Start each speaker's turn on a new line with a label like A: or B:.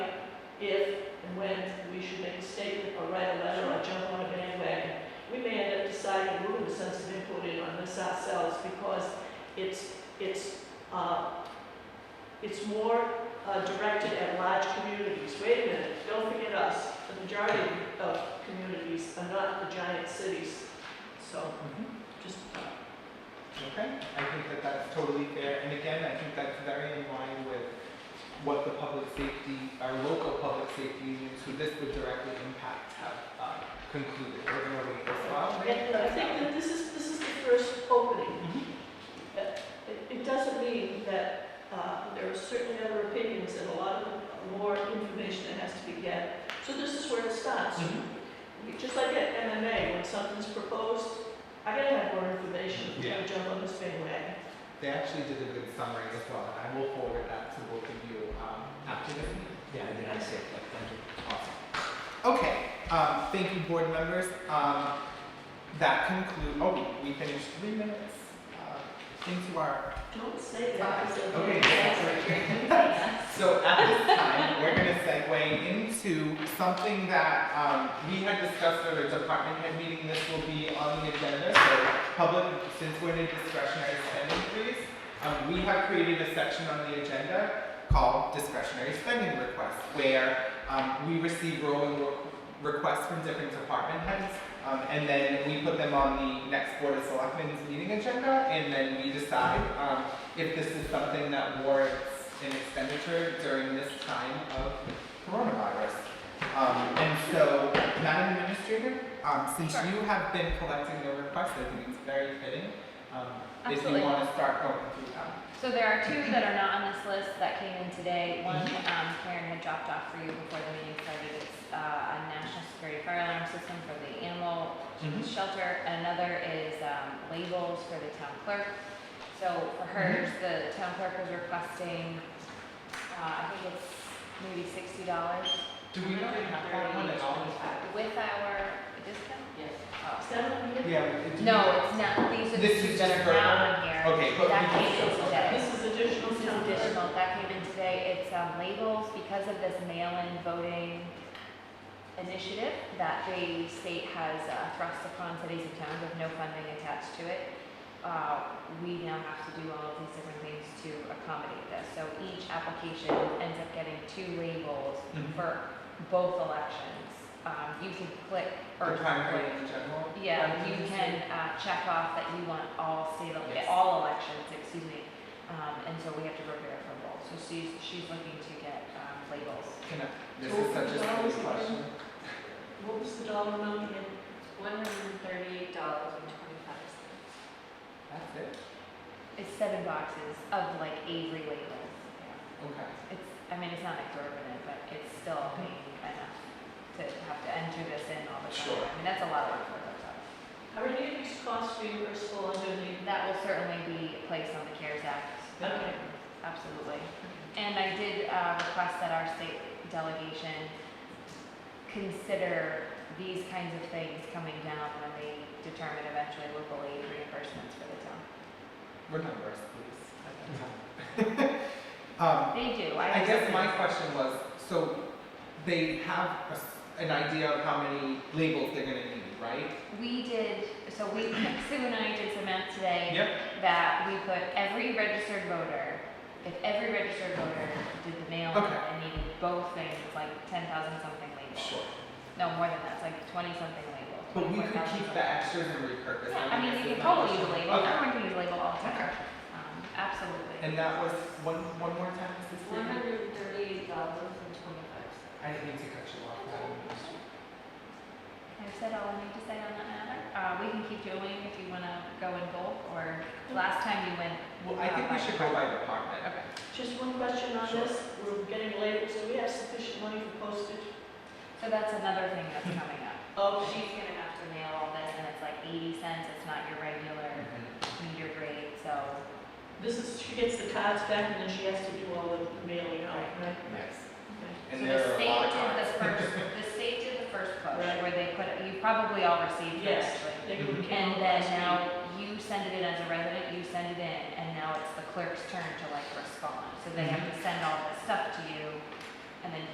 A: if and when we should make a statement or write a letter or jump on a bandwagon. We may end up deciding we're gonna send some input in on this ourselves because it's, it's, uh, it's more uh, directed at large communities. Wait a minute, don't forget us. The majority of communities are not the giant cities, so
B: Mhm.
A: just,
B: Okay, I think that that's totally fair, and again, I think that's very in line with what the public safety, our local public safety unions, who this would directly impact, have uh, concluded. We're gonna read this Mm-hmm. out.
A: and and I think Mm-hmm. that this is, this is the first opening.
B: Mhm.
A: It- It doesn't mean that, uh, there are certainly other opinions and a lot of more information that has to be gathered. So this is where it starts.
B: Mhm.
A: Just like at MMA, when something's proposed, I gotta have more information before I
B: Yeah.
A: jump on this bandwagon.
B: They actually did a good summary as well, and I will forward that to both of you um, after this meeting.
C: Yeah, I did, I said, like, thank you.
B: Awesome. Okay, um, thank you, board members. Um, that conclude, oh, we finished three minutes, uh, into our,
A: Don't say that.
B: okay, that's right. So at this time, we're gonna segue into something that, um, we had discussed at a department head meeting, this will be on the agenda, so public, since we're in a discretionary spending freeze, um, we have created a section on the agenda called discretionary spending requests, where, um, we receive rolling re- requests from different department heads, um, and then we put them on the next Board of Selectmen's meeting agenda, and then we decide, um, if this is something that warrants an expenditure during this time of coronavirus. Um, and so, Madam Administrator, um, since
D: Sure.
B: you have been collecting the requests, I think it's very fitting, um, if you
D: Absolutely.
B: wanna start going through them.
D: So there are two that are not on this list that came in today. One,
B: Mm-hmm.
D: um, Karen had dropped off for you before the meeting started. It's, uh, a national security fire alarm system for the animal
B: Mhm.
D: shelter. Another is, um, labels for the town clerk. So
B: Mm-hmm.
D: for hers, the town clerk was requesting, uh, I think it's maybe sixty dollars
B: Do we really have that one at all?
D: with our discount.
A: Yes. Is
D: Oh.
A: that what we did?
B: Yeah. it- do we-
D: No, it's not, these are the
B: This
D: two
B: is
D: that
B: just
D: are
B: for-
D: not on here.
B: Okay, but
D: That
B: we
D: came in today.
A: This is additional
D: This is
A: town clerk.
D: additional, that came in today, it's um, labels, because of this mail-in voting initiative that the state has uh, thrust upon cities and towns with no funding attached to it, uh, we now have to do all of these different things to accommodate this. So each application ends up getting two labels
B: Mhm.
D: for both elections. Um, You can click,
B: Or
D: or
B: time frame in general?
D: yeah,
B: Like,
D: you can uh, check off that you want all state, ele-
B: Yes.
D: all elections, excuse me. Um, And so we have to prepare for both. So she's, she's looking to get um, labels.
B: Can I, this is such a silly question.
A: What was the dollar amount again?
E: One hundred and thirty-eight dollars and twenty-five cents.
B: That's it?
D: It's seven boxes of like Avery labels.
B: Okay.
D: It's, I mean, it's not exorbitant, but it's still paying enough to have to enter this in all the time.
B: Sure.
D: I mean, that's a lot of work for those of us.
A: Are any of these costs reimbursable under the
D: That will certainly be placed on the CARES Act.
A: Okay.
D: Absolutely. And I did uh, request that our state delegation consider these kinds of things coming down when they determine eventually local aid reimbursements for the town.
B: Remember us, please. Um,
D: They do.
B: I guess my question was, so they have a s- an idea of how many labels they're gonna need, right?
D: We did, so we, Sue and I did some math today.
B: Yep.
D: that we put every registered voter, if every registered voter did the mail
B: Okay.
D: and needed both things, it's like ten thousand something labels.
B: Sure.
D: No, more than that, it's like twenty something labels.
B: But we could
D: 24,000
B: keep the
D: something.
B: extras and repurpose them.
D: Yeah, I
B: guess
D: mean,
B: is my
D: you could totally use a
B: question.
D: label,
B: Okay.
D: everyone can use a label all the
B: Okay.
D: time. Um, absolutely.
B: And that was, one, one more time, is this
E: One
B: it?
D: Uh-huh.
E: hundred and thirty-eight dollars and twenty-five cents.
B: I didn't mean to cut you off, Madam Administrator.
D: I've said all I need to say on that matter. Uh, we can keep doing if you wanna go in bulk, or last time you went.
B: Well, I think we should go by department.
D: Uh-huh. Okay.
A: Just one question on this, we're getting labels, do we have sufficient money for postage?
D: So that's another thing that's coming up.
A: Oh,
D: She's gonna have to mail all this, and it's like eighty cents, it's not your regular meter grade, so.
A: this is, she gets the cards back and then she has to do all the mailing out, right?
B: Yes.
A: Okay.
B: And
D: So
B: there are a lot of
D: The
B: times.
D: state did the first, the state did the first push,
A: Right.
D: where they put, you probably all received it,
A: Yes,
D: actually.
A: they would count
D: And then
A: last week.
D: now, you send it in as a resident, you send it in, and
B: Mm-hmm.
D: now it's the clerk's turn to like respond, so they have to send all this stuff to you, and then